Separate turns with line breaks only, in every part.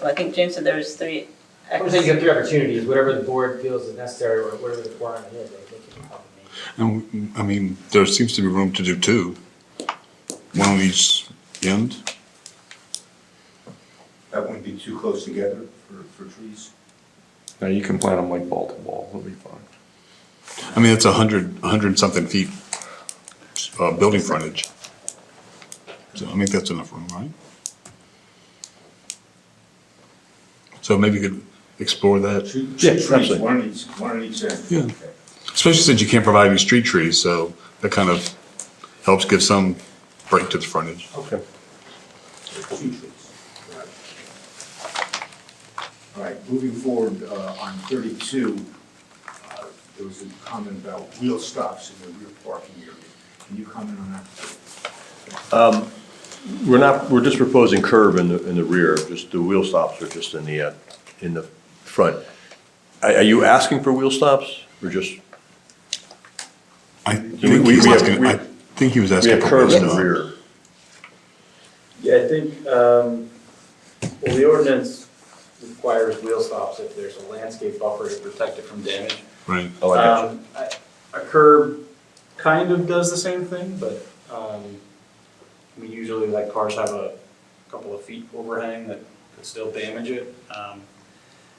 Well, I think James said there was three.
I'm saying you have three opportunities, whatever the board feels is necessary, or whatever the requirement is, I think you can probably make.
And, I mean, there seems to be room to do two. One on each end.
That wouldn't be too close together for, for trees.
Now you can plant them like ball to ball, it'll be fine.
I mean, it's a hundred, a hundred and something feet, uh, building frontage. So I think that's enough room, right? So maybe you could explore that,
Two,
Yeah,
two trees,
absolutely.
one on each, one on each end.
Yeah.
Okay.
especially since you can't provide any street trees, so that kind of helps give some break to the frontage.
Okay.
So Two trees. Right. All right, moving forward, uh, on thirty-two, uh, there was a comment about wheel stops in the rear parking area. Can you comment on that?
We're not, we're just proposing curb in the, in the rear, just the wheel stops are just in the, uh, in the front. Are, are you asking for wheel stops or just?
I think he was
we have-
asking,
we-
I think he was
We
asking.
have
for
curb in the
wisdom.
rear.
Yeah, I think, um, well, the ordinance requires wheel stops if there's a landscape buffer to protect it from damage.
Right,
Oh, I got you.
Um, I- A curb kind of does the same thing, but, um, I mean, usually like cars have a couple of feet overhang that could still damage it. Um,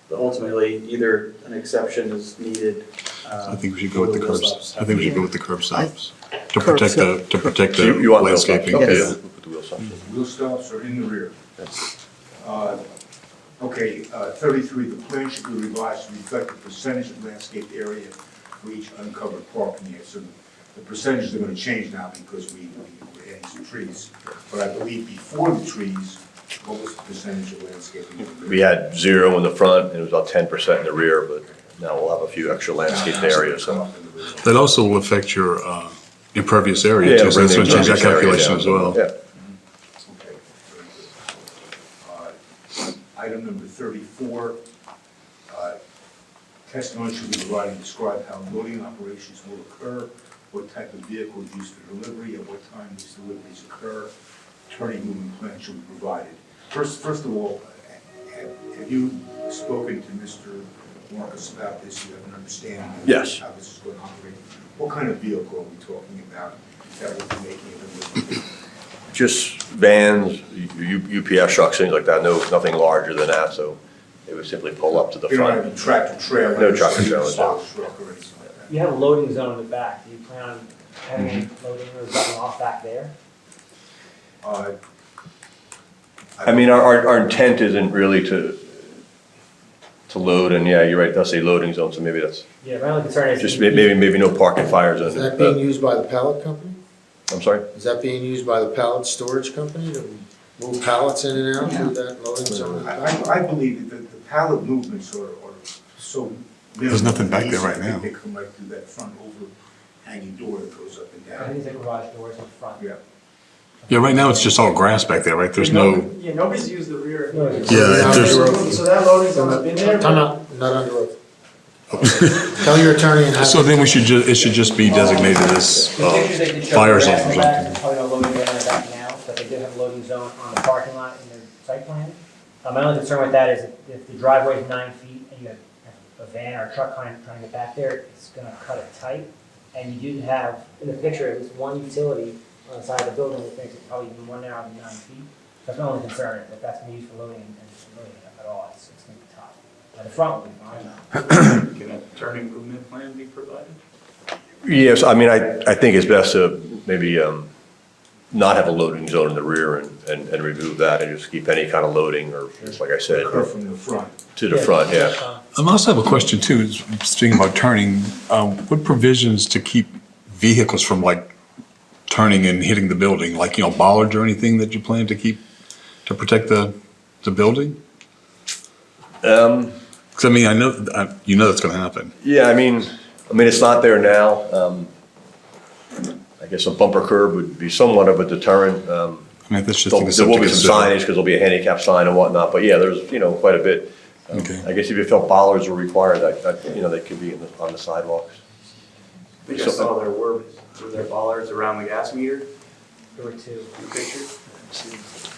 But ultimately, either an exception is needed. um,
I think we should go with the curbs, I think we should go with the curb stops, to
Curb
protect the, to protect
So
the
you, you want wheel stops?
landscaping.
Okay,
yeah.
we'll put the wheel stops in.
Wheel stops are in the rear.
That's-
Uh, Okay, uh, thirty-three, the plan should be revised to reflect the percentage of landscape area for each uncovered parking area. So the percentages are gonna change now because we, we- we're adding some trees. But I believe before the trees, what was the percentage of landscaping?
We had zero in the front and it was about ten percent in the rear, but now we'll have a few extra landscaped
Uh,
areas. so.
That also will affect your uh, impervious area
Yeah,
too, so that's
bring
going
the
to change that
impervious
calculation
area down.
as well.
Yeah.
Okay, very good. Uh, Item number thirty-four, uh, testimony should be provided and describe how loading operations will occur, what type of vehicle is used for delivery, at what time these deliveries occur, turning movement plan should be provided. First, first of all, uh, have have you spoken to Mr. Marcus about this, you have an understanding? of
Yes.
How this is going to operate? What kind of vehicle are we talking about that will be making a delivery?
Just vans, U- U- UPS trucks, things like that, no, nothing larger than that, so they would simply pull up to the
You don't have
front.
any tractor trailer.
No tractor trailer, no.
truck or anything like that.
You have a loading zone in the back, do you plan on having any
Mm-hmm.
loading or dropping off back there?
Uh,
I mean, our- our, our intent isn't really to, to load, and yeah, you're right, it does say loading zone, so maybe that's,
Yeah, my only concern is.
just may- maybe, maybe no parking fire zone.
Is that being
Uh,
used by the pallet company?
I'm sorry?
Is that being used by the pallet storage company to move pallets in and out through that loading zone?
I, I- I believe that the pallet movements are, are so. minimal
There's nothing back
and
there
easy.
right
I think
now.
They come right through that front overhanging door that goes up and
I think
down.
the garage doors in front.
Yeah.
Yeah, right now, it's just all grass back there, right? There's no,
Yeah, nobody's used the rear.
No, it's-
yeah,
Yeah.
there's,
So that loading zone's been there.
Time out, not under oath. Tell your attorney and have.
so then we should ju, it should just be designated as
The pictures they did show
uh,
the
fire
grass
zone
in
or
the back, there's probably no
something.
loading zone in the back now, but they did have a loading zone on the parking lot in their site plan. Uh, My only concern with that is if- if the driveway is nine feet and you have a van or a truck trying, trying to get back there, it's gonna cut it tight. And you do have, in the picture, at least one utility on the side of the building, which makes it probably even one now than nine feet. That's my only concern, is if that's gonna be used for loading and and loading at all, it's, it's gonna be tough. But the front would be fine.
Can a turning movement plan be provided?
Yes, I mean, I, I think it's best to maybe um, not have a loading zone in the rear and, and and remove that and just keep any kind of loading or, just like I said,
Occur from the front.
to the front, yeah.
I also have a question too, is speaking about turning, um, what provisions to keep vehicles from like turning and hitting the building? Like, you know, bollards or anything that you plan to keep, to protect the, the building?
Um,
Because I mean, I know, I- you know that's going to happen.
Yeah, I mean, I mean, it's not there now. Um, I guess a bumper curb would be somewhat of a deterrent. Um,
I mean, that's just.
There
something
there will be
to
some signage
consider.
because there'll be a handicap sign and whatnot, but yeah, there's, you know, quite a bit. Um,
Okay.
I guess if you felt bollards were required, that, that, you know, they could be in the- on the sidewalks.
I think I saw there were, were there bollards around the gas meter
There were two.
in the picture?